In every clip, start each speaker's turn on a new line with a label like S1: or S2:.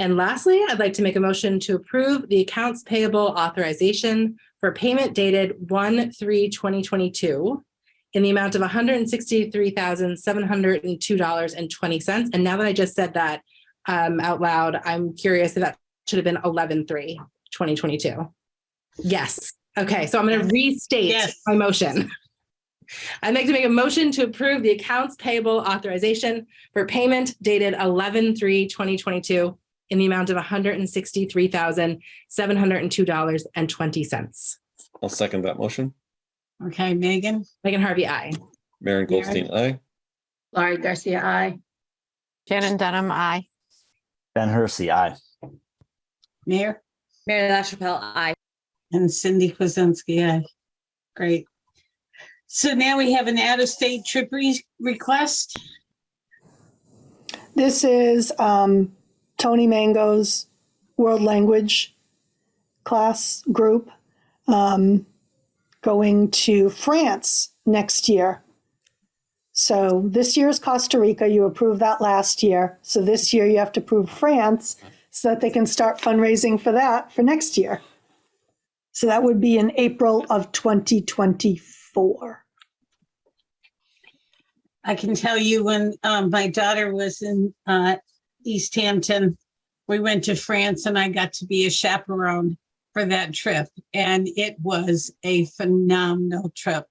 S1: And lastly, I'd like to make a motion to approve the accounts payable authorization for payment dated one, three, 2022 in the amount of hundred and sixty-three thousand, seven hundred and two dollars and twenty cents. And now that I just said that um, out loud, I'm curious if that should have been 11-3, 2022. Yes. Okay, so I'm going to restate
S2: Yes.
S1: my motion. I'd like to make a motion to approve the accounts payable authorization for payment dated 11-3, 2022 in the amount of hundred and sixty-three thousand, seven hundred and two dollars and twenty cents.
S3: I'll second that motion.
S2: Okay, Megan,
S1: Megan Harvey, I.
S3: Maren Goldstein, aye.
S4: Laurie Garcia, I.
S5: Shannon Dunham, I.
S6: Ben Hersey, aye.
S2: Mayor,
S7: Mary LaChapelle, I.
S2: and Cindy Kuzensky, aye. Great. So now we have an out-of-state trip re- request.
S8: This is um, Tony Mango's world language class group um, going to France next year. So this year is Costa Rica. You approved that last year. So this year you have to approve France so that they can start fundraising for that for next year. So that would be in April of 2024.
S2: I can tell you when um, my daughter was in uh, East Hampton, we went to France and I got to be a chaperone for that trip. And it was a phenomenal trip.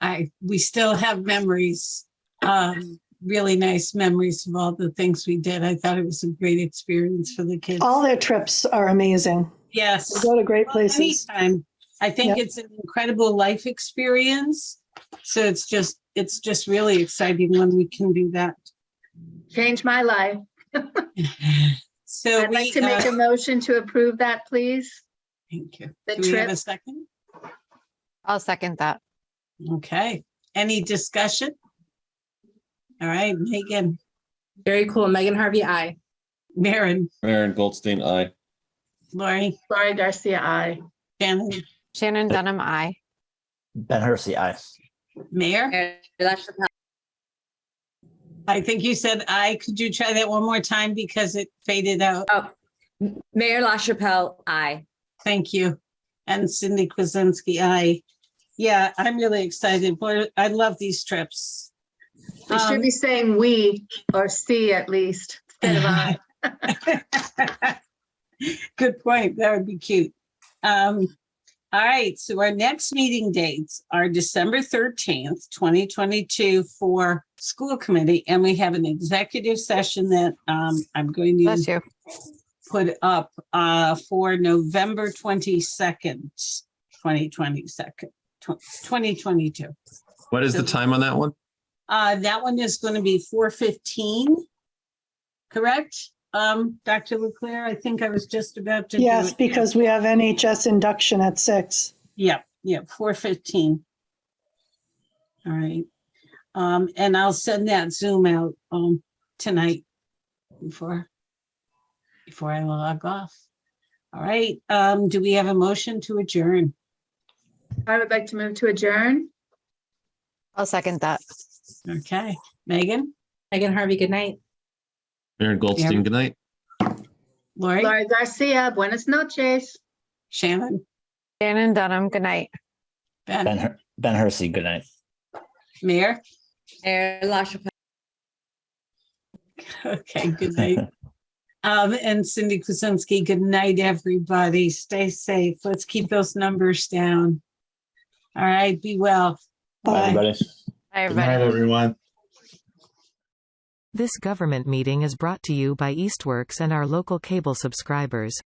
S2: I, we still have memories, um, really nice memories of all the things we did. I thought it was a great experience for the kids.
S8: All their trips are amazing.
S2: Yes.
S8: They go to great
S2: Well,
S8: places.
S2: Anytime. I think
S8: Yep.
S2: it's an incredible life experience. So it's just, it's just really exciting when we can do that.
S4: Change my life.
S2: So
S4: I'd like
S2: we,
S4: to make
S2: uh,
S4: a motion to approve that, please.
S2: thank you.
S4: the
S2: Do we have a
S4: trip.
S2: second?
S5: I'll second that.
S2: Okay. Any discussion? All right, Megan,
S1: Very cool. Megan Harvey, I.
S2: Maren,
S3: Maren Goldstein, aye.
S2: Lori,
S4: Laurie Garcia, I.
S2: Shannon,
S5: Shannon Dunham, I.
S6: Ben Hersey, aye.
S2: Mayor.
S7: Mary LaChapelle,
S2: I think you said I. Could you try that one more time because it faded out?
S7: Mayor LaChapelle, I.
S2: Thank you. And Cindy Kuzensky, I, yeah, I'm really excited. Boy, I love these trips.
S4: We should
S2: Um,
S4: be saying we or C at least. instead of I.
S2: Good point. That would be cute. Um, all right, so our next meeting dates are December thirteenth, twenty twenty-two for school committee, and we have an executive session that um I'm going to
S5: Bless you.
S2: put up uh for November twenty-second, twenty twenty-second, twenty twenty-two.
S3: What
S2: is the
S3: time on that one?
S2: Uh, that one is going to be four fifteen. Correct? Um, Dr. Leclaire, I think I was just about to. do
S8: Yes,
S2: it.
S8: because we have NHS induction at six.
S2: Yep, yep, four fifteen. All right. Um, and I'll send that Zoom out, um, tonight before, before I log off. All right, um, do we have a motion to adjourn?
S4: I would like to move to adjourn.
S5: I'll second that.
S2: Okay, Megan,
S1: Megan Harvey, good night.
S3: Maren Goldstein, good night.
S2: Lori,
S4: Laurie Garcia, buenas noches.
S2: Shannon,
S5: Shannon Dunham, good night.
S6: Ben,
S2: Ben,
S6: Her- Ben Hersey, good night.
S2: Mayor.
S7: Mayor LaChapelle,
S2: Okay, good night. Um, and Cindy Kuzensky, good night, everybody. Stay safe. Let's keep those numbers down. All right, be well.
S6: Bye,
S8: Bye.
S6: everybody.
S5: Hi,
S9: Good
S5: everybody.
S9: night, everyone.
S10: This government meeting is brought to you by Eastworks and our local cable subscribers.